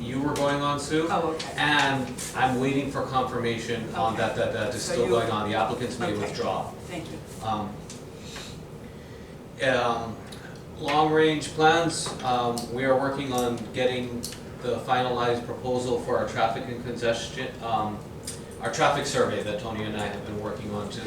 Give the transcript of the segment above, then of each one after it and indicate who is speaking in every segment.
Speaker 1: you were going on, Sue.
Speaker 2: Oh, okay.
Speaker 1: And I'm waiting for confirmation on that, that, that is
Speaker 2: So
Speaker 1: still
Speaker 2: you-
Speaker 1: going on, the applicants may
Speaker 2: Okay.
Speaker 1: withdraw.
Speaker 2: Thank you.
Speaker 1: Um, um, long-range plans, um, we are working on getting the finalized proposal for our traffic and congestion, um, our traffic survey that Tony and I have been working on to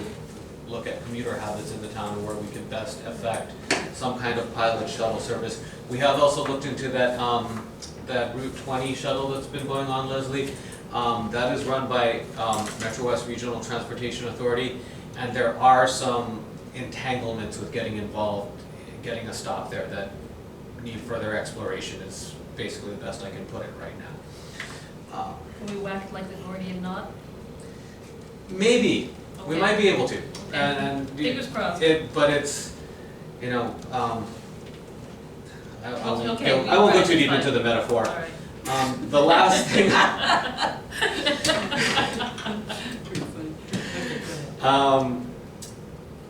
Speaker 1: look at commuter habits in the town and where we can best affect some kind of pilot shuttle service. We have also looked into that, um, that Route twenty shuttle that's been going on, Leslie. Um, that is run by, um, Metro West Regional Transportation Authority, and there are some entanglements with getting involved, getting a stop there that need further exploration is basically the best I can put it right now. Um,
Speaker 3: Can we whack like the Gordian knot?
Speaker 1: Maybe, we
Speaker 3: Okay.
Speaker 1: might be able to, and, and.
Speaker 3: Fingers crossed.
Speaker 1: It, but it's, you know, um, I, I won't
Speaker 3: Okay,
Speaker 1: go,
Speaker 3: we-
Speaker 1: I won't go
Speaker 3: right,
Speaker 1: too deep
Speaker 3: fine.
Speaker 1: into the metaphor.
Speaker 3: Alright.
Speaker 1: Um, the last thing, um,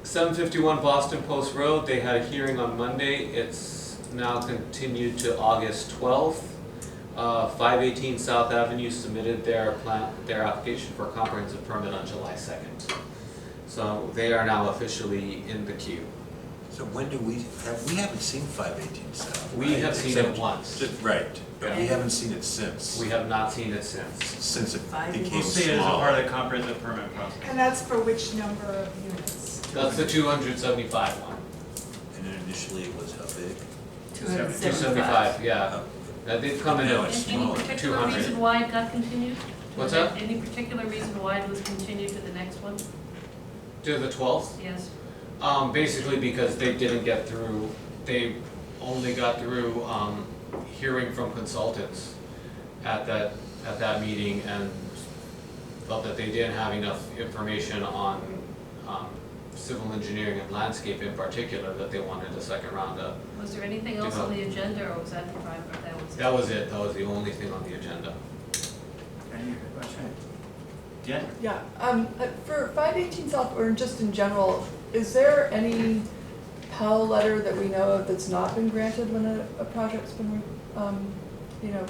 Speaker 1: seven fifty-one Boston Post Road, they had a hearing on Monday, it's now continued to August twelfth. Uh, five eighteen South Avenue submitted their plan, their application for a comprehensive permit on July second. So they are now officially in the queue.
Speaker 4: So when do we, have, we haven't seen five eighteen South.
Speaker 1: We
Speaker 4: right?
Speaker 1: have seen it
Speaker 4: Except-
Speaker 1: once,
Speaker 4: just- Right, but we
Speaker 2: Yeah.
Speaker 4: haven't seen it since,
Speaker 1: we have not seen it since.
Speaker 4: since it
Speaker 2: Five
Speaker 4: became small.
Speaker 5: We'll see it as a part of the comprehensive permit process.
Speaker 6: And that's for which number of units?
Speaker 1: That's the two hundred seventy-five one.
Speaker 4: And then initially it was how big?
Speaker 2: Two hundred and
Speaker 1: Two
Speaker 2: seventy-five.
Speaker 1: seventy-five, yeah.
Speaker 4: Oh,
Speaker 1: Uh, They've come in,
Speaker 4: No,
Speaker 1: at-
Speaker 4: it's-
Speaker 3: And any
Speaker 4: smaller,
Speaker 3: particular
Speaker 1: 200.
Speaker 3: reason why it got continued?
Speaker 1: What's
Speaker 3: Was there
Speaker 1: that?
Speaker 3: Any particular reason why it was continued to the next one?
Speaker 1: to the twelfth,
Speaker 3: Yes.
Speaker 1: um, basically because they didn't get through, they only got through, um, hearing from consultants at that, at that meeting and felt that they didn't have enough information on, um, civil engineering and landscape in particular, that they wanted a second round up.
Speaker 3: Was there anything else on the agenda or was that the driver that was?
Speaker 1: That was it, that was the only thing on the agenda.
Speaker 5: Any other question? Jen?
Speaker 7: Yeah, um, uh, for five eighteen South, or just in general, is there any Pell letter that we know of that's not been granted when a, a project's been, re- um, you know,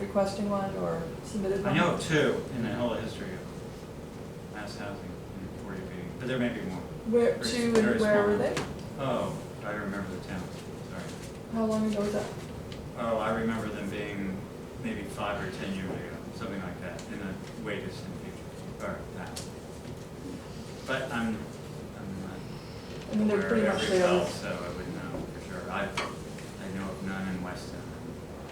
Speaker 7: requesting one or submitted
Speaker 5: I
Speaker 7: one?
Speaker 5: know of two in the whole history of mass housing in forty B, but there may be more.
Speaker 7: Where,
Speaker 5: Very-
Speaker 7: to
Speaker 5: very
Speaker 7: and where were
Speaker 5: small.
Speaker 7: they?
Speaker 5: Oh, I remember the town, sorry.
Speaker 7: How long ago was that?
Speaker 5: Oh, I remember them being maybe five or ten years ago, something like that, in the way distant future, or that. But I'm, I'm
Speaker 7: I
Speaker 5: not
Speaker 7: mean, they're
Speaker 5: aware
Speaker 7: pretty
Speaker 5: of
Speaker 7: much
Speaker 5: every
Speaker 7: there.
Speaker 5: cell, so I wouldn't know for sure. I, I know of none in Weston,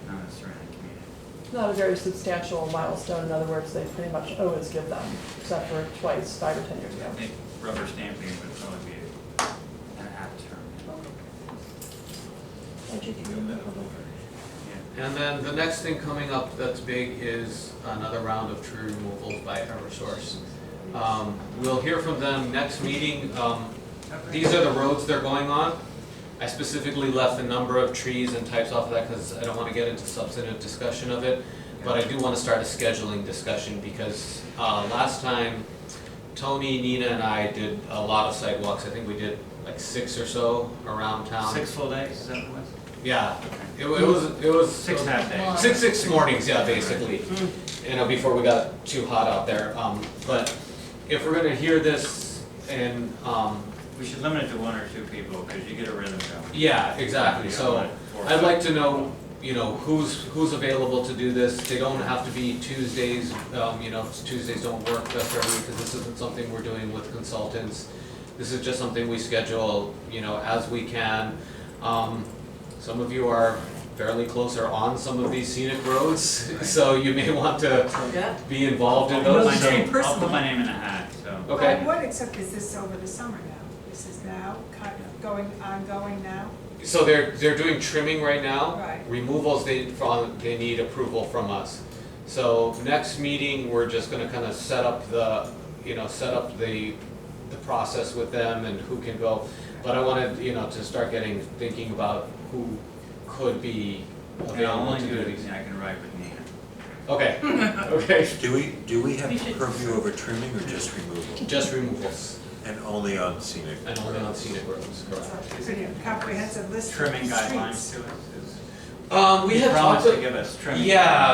Speaker 5: none in the surrounding community.
Speaker 7: It's Not a very substantial milestone, in other words, they pretty much always give them, except for twice, five or ten years ago.
Speaker 5: I think rubber stamping would probably be an apt term.
Speaker 7: How'd you
Speaker 4: you
Speaker 7: do
Speaker 4: know,
Speaker 7: that?
Speaker 4: that one over.
Speaker 5: Yeah.
Speaker 1: And then the next thing coming up that's big is another round of tree removals by Eversource. Um, we'll hear from them next meeting, um, these are the roads they're going on. I specifically left the number of trees and types off of that because I don't wanna get into substantive discussion of it. But I do wanna start a scheduling discussion because, uh, last time Tony, Nina and I did a lot of sidewalks, I think we did like six or so around town.
Speaker 5: Six full days, is that what it was?
Speaker 1: Yeah,
Speaker 5: Okay.
Speaker 1: it wa- it was, it was.
Speaker 5: Six half Mm. days.
Speaker 1: Six, six mornings, yeah, basically, you know, before we got too hot out there, um, but if we're gonna hear this and, um,
Speaker 5: We should limit it to one or two people, because you get a rhythm going.
Speaker 1: yeah, exactly, so. I'd like to know, you know, who's, who's available to do this, they don't have to be Tuesdays, um, you know, if Tuesdays don't work best for everyone, because this isn't something we're doing with consultants. This is just something we schedule, you know, as we can. Um, some of you are fairly close or on some of these scenic roads, so you may want to
Speaker 2: Yeah.
Speaker 1: be involved in
Speaker 5: I'll put
Speaker 1: those.
Speaker 5: my
Speaker 2: Those three
Speaker 5: name, I'll put
Speaker 2: personally.
Speaker 5: my name in a hat, so.
Speaker 1: Okay.
Speaker 6: I would, except is this over the summer now? This is now, kind of going, ongoing now?
Speaker 1: So they're, they're doing trimming right now.
Speaker 6: Right.
Speaker 1: Removals, they, from, they need approval from us. So next meeting, we're just gonna kind of set up the, you know, set up the, the process with them and who can go. But I wanted, you know, to start getting, thinking about who could be
Speaker 5: And I'll
Speaker 1: available
Speaker 5: only
Speaker 1: to
Speaker 5: do
Speaker 1: do
Speaker 5: it
Speaker 1: these.
Speaker 5: if I can ride with Nina.
Speaker 1: Okay, okay,
Speaker 4: Do we, do we have
Speaker 3: We should-
Speaker 4: purview over trimming or just removal?
Speaker 1: just removals
Speaker 4: And only on scenic?
Speaker 1: and only on scenic roads,
Speaker 6: It's
Speaker 1: correct.
Speaker 6: a pretty comprehensive list of
Speaker 5: Trimming
Speaker 6: streets.
Speaker 5: guidelines to it is.
Speaker 1: Um, we
Speaker 5: He
Speaker 1: had talked.
Speaker 5: promised to
Speaker 1: a-
Speaker 5: give us trimming.
Speaker 1: Yeah,